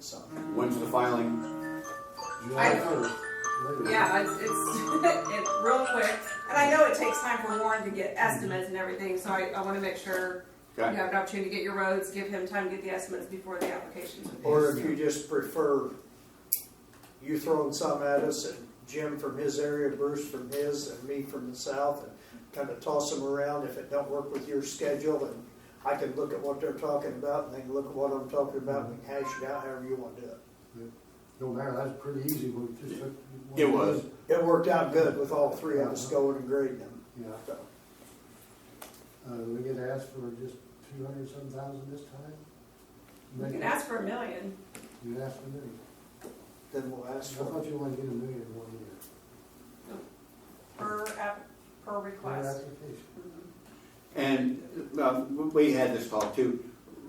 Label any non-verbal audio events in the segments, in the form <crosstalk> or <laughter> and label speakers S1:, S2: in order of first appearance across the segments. S1: so.
S2: When's the filing?
S3: I-
S4: July first.
S3: Yeah, it's, it's, <laughs> it, real quick, and I know it takes time for Warren to get estimates and everything, so I, I wanna make sure you
S2: Okay.
S3: have an opportunity to get your roads, give him time to get the estimates before the application's
S1: Or if you just prefer, you throwing some at us, and Jim from his area, Bruce from his, and me from the south, and kind of toss them around if it don't work with your schedule, and I can look at what they're talking about, and they can look at what I'm talking about, and we can hash it out however you want to do it.
S4: No matter, that's pretty easy, we just. took one
S2: It was.
S4: day.
S1: It worked out good with all three of us going and grading them,
S4: Yeah,
S1: so.
S4: uh, we get asked for just two hundred some thousand this time?
S3: You can ask for a million,
S4: You asked for a million.
S1: Then we'll
S4: I
S1: ask for
S4: thought you wanted to get a million in one year.
S3: per app, per
S4: Per
S3: request.
S4: application.
S3: Mhm.
S2: And uh, we had this talk too.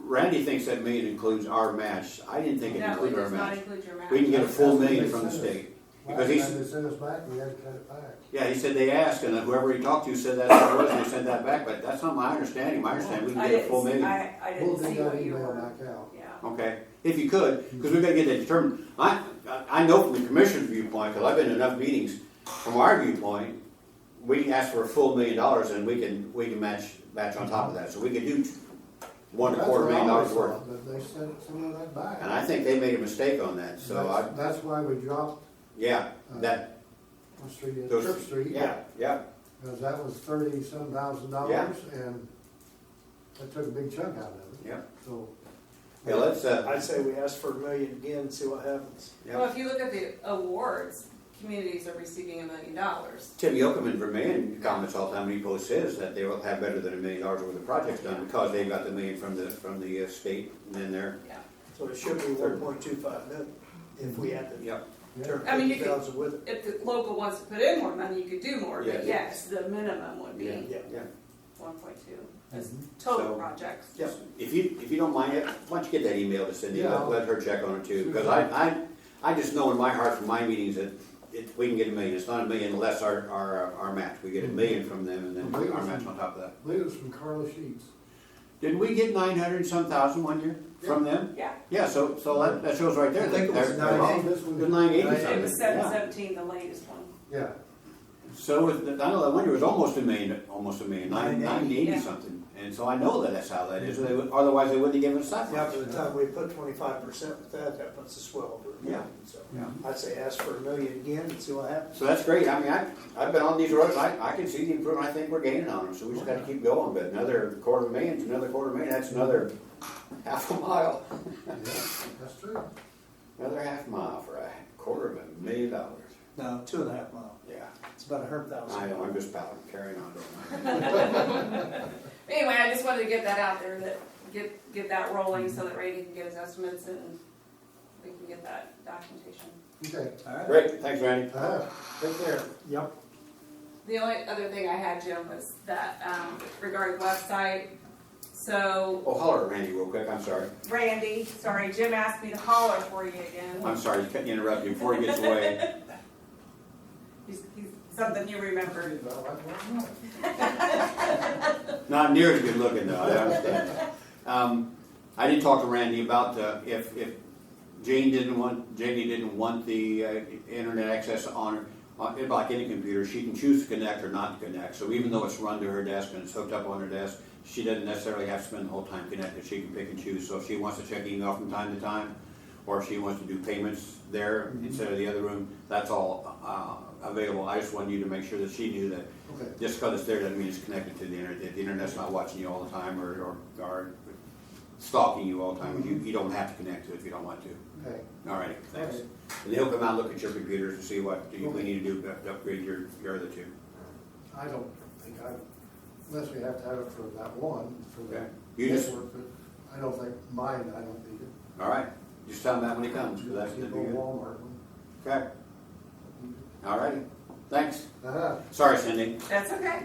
S2: Randy thinks that million includes our match. I didn't think it
S3: No, it
S2: included our
S3: does not
S2: match.
S3: include your match.
S2: We can get a full
S4: That's what
S2: million
S4: they
S2: from the
S4: said.
S2: state. Because
S4: Last
S2: he's-
S4: time they sent us back, we had to cut it back.
S2: Yeah, he said they asked, and whoever he talked to said that's what it was, and they sent that back, but that's not my understanding. My understanding, we
S3: I
S2: can get a
S3: didn't,
S2: full
S3: see-
S2: million.
S3: I, I
S4: We'll
S3: didn't
S4: dig
S3: see
S4: that
S3: what you
S4: email
S3: were,
S4: back out.
S3: yeah.
S2: Okay, if you could, because we've got to get that determined. I, I- I know from the commissioner's viewpoint, because I've been in enough meetings, from our viewpoint, we can ask for a full million dollars and we can, we can match, match on top of that. So we can do one and a
S4: That's
S2: quarter
S4: what I
S2: million dollars
S4: always
S2: worth.
S4: thought, But they sent some of that back.
S2: And I think they made a mistake on that, so I,
S4: That's- That's why we dropped
S2: yeah,
S4: uh,
S2: that,
S4: on street,
S2: those-
S4: Church Street.
S2: yeah, yeah,
S4: Because that was thirty some thousand dollars and that took a big chunk out of it,
S2: yeah.
S4: so.
S2: Yeah, let's,
S1: it.
S2: uh,
S1: I'd say we ask for a million again, and see what happens.
S3: Well,
S2: yeah.
S3: if you look at the awards, communities are receiving a million dollars.
S2: Tim Yocum in Vermillion comments all the time, he posts says that they will have better than a million dollars worth of projects done because they've got the million from the, from the uh, state and then they're,
S3: Yeah.
S1: So it should be one point two five million if we had to
S2: yeah.
S4: Yeah,
S1: turn
S3: I mean, you
S1: fifty
S3: could-
S1: thousand with it.
S3: If the local wants to put in more money, you could do more, but
S2: Yeah.
S3: yes, the minimum would
S2: Yeah,
S3: be
S1: Yeah.
S2: yeah.
S3: one point two. That's total
S2: So-
S3: projects.
S1: Yeah.
S2: If you, if you don't mind, why don't you get that email to Cindy,
S4: Yeah.
S2: let, let her check on it too, because I, I, I just know in my heart from my meetings that it, we can get a million, it's not a million unless our, our, uh, our match, we get a million from them and then our match on top of that.
S4: I believe it was from Carla Sheets.
S2: Didn't we get nine hundred and some thousand one year from them?
S3: Yeah,
S2: Yeah, so, so that, that shows right there.
S1: I think it was
S2: they're-
S1: nine
S2: they're wrong.
S4: eighty. This one-
S2: It was nine eighty
S4: Nine
S3: it was
S2: something,
S3: seven
S2: yeah.
S3: seventeen, the latest one.
S4: Yeah,
S2: So with, the- I know that one year was almost a million, almost a million, nine, nine
S1: 980,
S2: eighty
S3: yeah.
S2: something. And so I know that that's how that is, They would- otherwise they wouldn't have given us that
S1: Now,
S2: much.
S1: by the time we put twenty-five percent with that, that puts us well over a million, so.
S2: Yeah.
S1: I'd say ask for a million again and see what happens.
S2: So that's great, I mean, I, I've been on these roads, I, I can see the improvement, I think we're gaining on them, so we just gotta keep going. But another quarter million's another quarter million, that's another half a mile,
S4: yeah, that's true.
S2: another half mile for a quarter of a million dollars.
S1: No, two and a half mile,
S2: Yeah,
S1: it's about a hundred
S2: I
S1: thousand.
S2: know, I'm just pouting, carrying on. <laughs> don't I?
S3: Anyway, I just wanted to get that out there, that, get, get that rolling so that Randy can get his estimates and we can get that documentation.
S4: Okay,
S2: Great, thanks Randy.
S4: uh, take care.
S1: Yep.
S3: The only other thing I had, Jim, was that, um, regarding website, so
S2: Oh, holler at Randy real quick, I'm sorry.
S3: Randy, sorry, Jim asked me to holler for you again.
S2: I'm sorry, you couldn't interrupt you before he gets away.
S3: He's, he's something you remembered.
S4: Well, I don't know.
S2: Not near as good looking though, I understand. Um, I did talk to Randy about uh, if, if Jane didn't want, Janie didn't want the uh, internet access on, her- on, it- like any computer, she can choose to connect or not to connect. So even though it's run to her desk and it's hooked up on her desk, she doesn't necessarily have to spend the whole time connected. She can pick and choose. So if she wants to check email from time to time, or if she wants to do payments there instead of the other room, that's all uh, available. I just wanted you to make sure that she knew that
S4: Okay,
S2: just because it's there doesn't mean it's connected to the internet. The- The internet's not watching you all the time or, or, or stalking you all the time. You, you don't have to connect to it if you don't want to.
S4: okay,
S2: All right, thanks.
S4: Okay.
S2: And he'll come out, look at your computers and see what do you, we need to do to upgrade your, your other two.
S4: I don't think I, unless we have to have it for that one, for
S2: Okay.
S4: the.
S2: You just-
S4: network, but I don't think, mine, I don't need it.
S2: All right, just tell him that when he comes, 'cause that's
S4: Get
S2: gonna
S4: a
S2: be good.
S4: Walmart one.
S2: Okay, all righty, thanks.
S4: Uh-huh.
S2: Sorry, Cindy.
S3: That's okay.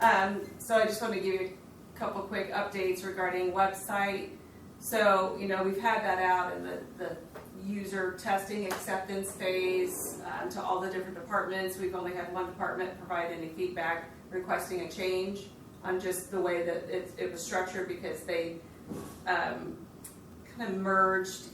S3: Um, so I just want to give you a couple quick updates regarding website. So, you know, we've had that out in the, the user testing acceptance phase um, to all the different departments. We've only had one department provide any feedback requesting a change on just the way that it, it was structured because they um, kind of merged